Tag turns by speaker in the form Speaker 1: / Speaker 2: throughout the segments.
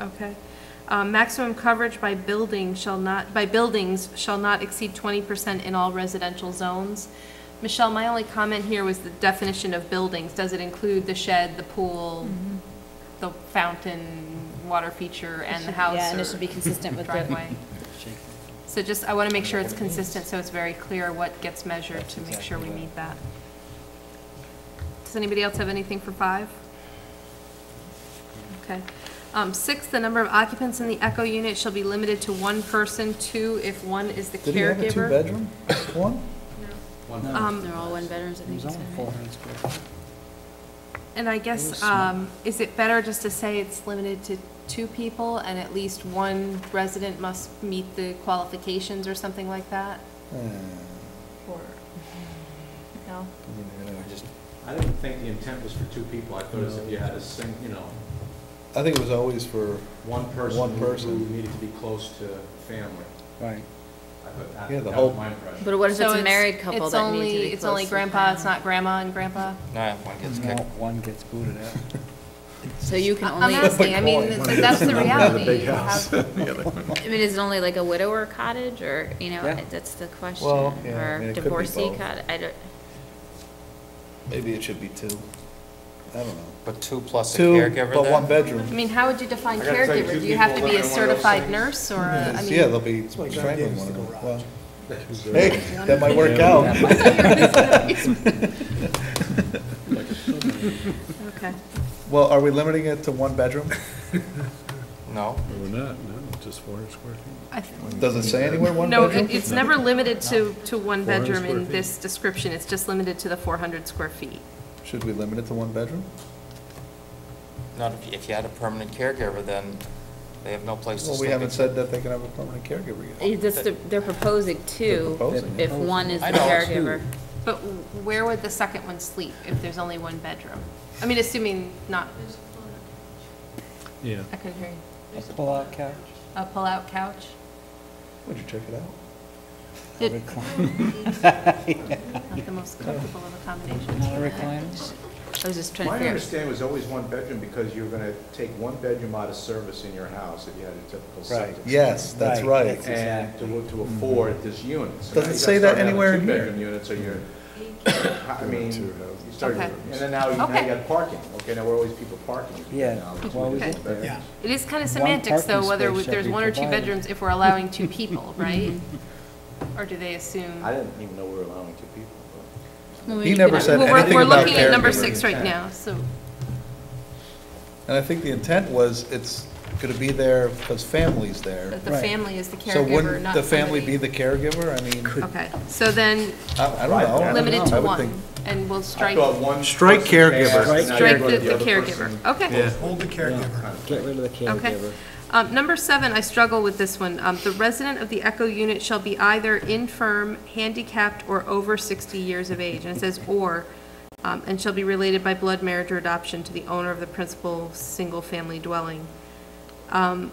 Speaker 1: Okay. Uh, Maximum coverage by building shall not, by buildings shall not exceed 20% in all residential zones. Michelle, my only comment here was the definition of buildings. Does it include the shed, the pool, the fountain, water feature, and the house?
Speaker 2: Yeah, and
Speaker 1: or
Speaker 2: Mm-hmm. it should be consistent with the,
Speaker 1: Driveway. So just, I want to make sure it's consistent, so it's very clear what gets measured to make sure we meet that. Does anybody else have anything for five? Okay. Um, Six, the number of occupants in the Echo unit shall be limited to one person, two if one is the
Speaker 3: Did he have a
Speaker 1: caregiver.
Speaker 3: two-bedroom? One?
Speaker 1: Um,
Speaker 2: they're all one bedrooms, I
Speaker 4: It
Speaker 2: think.
Speaker 4: was
Speaker 2: you
Speaker 4: only
Speaker 2: said,
Speaker 4: four
Speaker 2: right?
Speaker 4: hundred square feet.
Speaker 1: And I guess, um, is it better just to say it's limited to two people and at least one resident must meet the qualifications or something like that?
Speaker 3: Uh, I mean,
Speaker 1: Or, no?
Speaker 3: you know, I just-
Speaker 5: I didn't think the intent was for two people, I thought it was if you had a sing, you know,
Speaker 3: I think it was always for,
Speaker 5: one person.
Speaker 3: One
Speaker 5: who-
Speaker 3: person.
Speaker 5: Who needed to be close to family.
Speaker 4: Right.
Speaker 5: I thought that,
Speaker 3: Yeah, the
Speaker 5: that
Speaker 3: whole-
Speaker 5: was my impression.
Speaker 2: But what if
Speaker 1: So
Speaker 2: it's a married couple
Speaker 1: it's
Speaker 2: that
Speaker 1: only-
Speaker 2: need to be
Speaker 1: It's only
Speaker 2: close to
Speaker 1: grandpa, it's
Speaker 2: them?
Speaker 1: not grandma and grandpa?
Speaker 6: Nah, one gets
Speaker 4: No,
Speaker 6: kicked.
Speaker 4: one gets booted out.
Speaker 2: So you can
Speaker 1: I'm
Speaker 2: only,
Speaker 1: asking, I mean,
Speaker 3: Point.
Speaker 1: th- that's the reality.
Speaker 7: big
Speaker 1: You have-
Speaker 7: house. The other one.
Speaker 2: I mean, is it only like a widower cottage or, you know,
Speaker 4: Yeah.
Speaker 2: that's the question?
Speaker 3: Well, yeah, I mean,
Speaker 2: Or
Speaker 3: it could be
Speaker 2: divorcee
Speaker 3: both.
Speaker 2: cottage, I don't,
Speaker 3: maybe it should be two. I don't know.
Speaker 6: But two plus a
Speaker 3: Two,
Speaker 6: caregiver
Speaker 3: but
Speaker 6: then?
Speaker 3: one
Speaker 1: I
Speaker 3: bedroom.
Speaker 1: mean, how would you define
Speaker 5: I gotta tell you,
Speaker 1: caregiver?
Speaker 5: two
Speaker 1: Do you have to
Speaker 5: people
Speaker 1: be a
Speaker 5: living in one of those
Speaker 1: certified
Speaker 5: things.
Speaker 1: nurse or, a- Uh, I mean?
Speaker 3: Mm, Yeah, they'll be
Speaker 4: why John
Speaker 3: strangling
Speaker 4: Davis
Speaker 3: one
Speaker 4: did the
Speaker 3: another.
Speaker 4: garage.
Speaker 3: Well, Hey, that might work out.
Speaker 1: Okay.
Speaker 3: Well, are we limiting it to one bedroom?
Speaker 6: No,
Speaker 7: We're not, no, just four hundred square feet.
Speaker 1: I th-
Speaker 3: Does it say anywhere one
Speaker 1: No,
Speaker 3: bedroom?
Speaker 1: it- it's never limited to, to one
Speaker 7: 400
Speaker 1: bedroom
Speaker 7: square
Speaker 1: in
Speaker 7: feet.
Speaker 1: this description. It's just limited to the 400 square feet.
Speaker 3: Should we limit it to one bedroom?
Speaker 6: not if, if you had a permanent caregiver, then they have no place to
Speaker 3: Well,
Speaker 6: sleep.
Speaker 3: we haven't said that they can have a permanent caregiver yet.
Speaker 2: that's the, they're proposing two,
Speaker 3: proposing
Speaker 2: if one is the
Speaker 6: I know, two.
Speaker 2: caregiver.
Speaker 1: But where would the second one sleep if there's only one bedroom? I mean, assuming not,
Speaker 7: Yeah.
Speaker 1: I couldn't hear you.
Speaker 4: A pull-out couch,
Speaker 1: A pull-out couch?
Speaker 3: Would you check it out?
Speaker 4: a
Speaker 1: Did-
Speaker 4: recliner,
Speaker 1: Not the most comfortable of accommodations.
Speaker 4: not a recliner.
Speaker 2: I was just trying to
Speaker 5: My
Speaker 2: figure out.
Speaker 5: understanding was always one bedroom, because you were gonna take one bedroom out of service in your house if you had a typical
Speaker 4: Right.
Speaker 5: septic.
Speaker 3: Yes, that's
Speaker 4: Right,
Speaker 3: right.
Speaker 4: that's-
Speaker 5: And to, to afford this unit. So
Speaker 3: Does
Speaker 5: now
Speaker 3: it
Speaker 5: you
Speaker 3: say
Speaker 5: gotta
Speaker 3: that
Speaker 5: start having
Speaker 3: anywhere in here?
Speaker 5: Two-bedroom units, or you're, I mean, you start,
Speaker 1: Okay.
Speaker 5: and then now you, now
Speaker 1: Okay.
Speaker 5: you got parking, okay, now we're always people parking.
Speaker 4: Yeah,
Speaker 5: Now it's
Speaker 4: well, we
Speaker 5: two
Speaker 1: get
Speaker 5: people
Speaker 4: there.
Speaker 5: bedrooms.
Speaker 1: It is kind
Speaker 4: One
Speaker 1: of semantics, though,
Speaker 4: parking
Speaker 1: whether
Speaker 4: space shall
Speaker 1: there's
Speaker 4: be
Speaker 1: one or two
Speaker 4: provided.
Speaker 1: bedrooms if we're allowing two people, right? Or do they assume?
Speaker 5: I didn't even know we were allowing two people. but-
Speaker 2: Well,
Speaker 3: He
Speaker 2: we
Speaker 3: never
Speaker 2: could-
Speaker 3: said
Speaker 1: Well,
Speaker 3: anything
Speaker 1: we're-
Speaker 3: about
Speaker 1: We're looking at number
Speaker 3: caregiver.
Speaker 1: six right now, so,
Speaker 3: And I think the intent was it's going to be there because family's there.
Speaker 1: that the
Speaker 4: Right.
Speaker 1: family is the
Speaker 3: So
Speaker 1: caregiver,
Speaker 3: wouldn't
Speaker 1: not
Speaker 3: the family
Speaker 1: somebody-
Speaker 3: be the caregiver? I mean,
Speaker 1: Okay, so then,
Speaker 3: I I don't know.
Speaker 1: limited
Speaker 3: I
Speaker 1: to
Speaker 3: would think-
Speaker 1: one, and we'll
Speaker 5: I
Speaker 1: strike,
Speaker 5: thought one.
Speaker 3: Strike
Speaker 5: person passed,
Speaker 3: caregiver.
Speaker 5: now you're
Speaker 1: strike the
Speaker 5: gonna give
Speaker 1: the caregiver,
Speaker 5: person-
Speaker 1: okay.
Speaker 8: Hold the caregiver.
Speaker 4: Get rid of the
Speaker 1: Okay.
Speaker 4: caregiver.
Speaker 1: Um, number seven, I struggle with this one. Um, the resident of the Echo unit shall be either infirm, handicapped, or over sixty years of age, and it says or, um, and shall be related by blood marriage or adoption to the owner of the principal single-family dwelling. Um,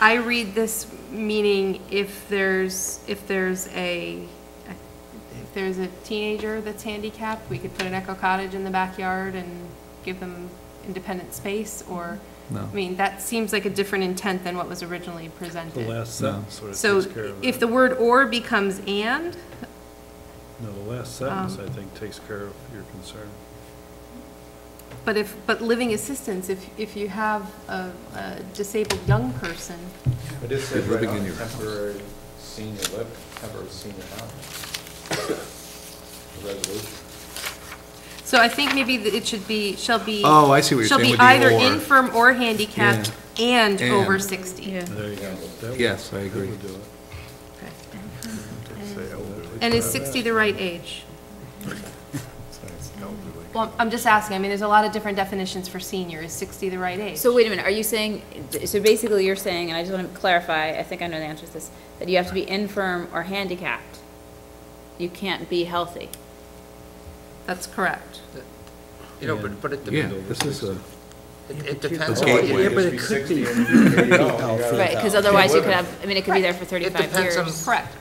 Speaker 1: I read this meaning if there's, if there's a, if there's a teenager that's handicapped, we could put an Echo cottage in the backyard and give them independent space, or, I mean, that seems like a different intent than what was originally
Speaker 7: The
Speaker 1: presented.
Speaker 7: last sentence sort of
Speaker 1: So
Speaker 7: takes care of that.
Speaker 1: if the word "or" becomes "and,"
Speaker 7: No, the last sentence,
Speaker 1: um,
Speaker 7: I think, takes care of your concern.
Speaker 1: But if, but living assistance, if, if you have a a disabled young person,
Speaker 5: But it says
Speaker 7: You're
Speaker 5: right
Speaker 7: living
Speaker 5: on
Speaker 7: in your house.
Speaker 5: temporary senior living, temporary senior housing. The resolution.
Speaker 1: so I think maybe that it should be, shall be.
Speaker 3: Oh, I see what you're saying with the
Speaker 1: Shall be
Speaker 3: or.
Speaker 1: either infirm or handicapped and
Speaker 3: And.
Speaker 1: over 60.
Speaker 2: Yeah.
Speaker 7: There you go. That would-
Speaker 3: Yes, I agree.
Speaker 7: That would do it.
Speaker 1: Okay.
Speaker 7: Don't say elderly.
Speaker 1: And is 60 the right age? Well, I'm just asking, I mean, there's a lot of different definitions for senior. Is 60 the right age?
Speaker 2: So wait a minute, are you saying, so basically you're saying, and I just want to clarify, I think I know the answer to this, that you have to be infirm or handicapped? You can't be healthy?
Speaker 1: That's correct.
Speaker 6: You know, but, but it,
Speaker 7: Yeah,
Speaker 6: dep-
Speaker 7: this is a.
Speaker 6: it it depends on
Speaker 3: Okay.
Speaker 6: what
Speaker 3: Yeah,
Speaker 6: you,
Speaker 3: but
Speaker 6: it
Speaker 5: Just be 60 and you gotta go. You gotta-
Speaker 2: Right, because otherwise you could have, I mean, it could be there for
Speaker 6: It
Speaker 2: 35
Speaker 6: depends on-
Speaker 2: years.
Speaker 1: Correct.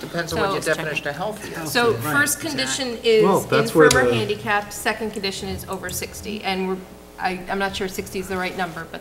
Speaker 6: depends on what your
Speaker 2: So-
Speaker 6: definition of healthy is.
Speaker 1: So first condition is
Speaker 3: Well,
Speaker 1: infirm
Speaker 3: that's where
Speaker 1: or
Speaker 3: the-
Speaker 1: handicapped, second condition is over 60. And we're, I, I'm not sure 60 is the right number, but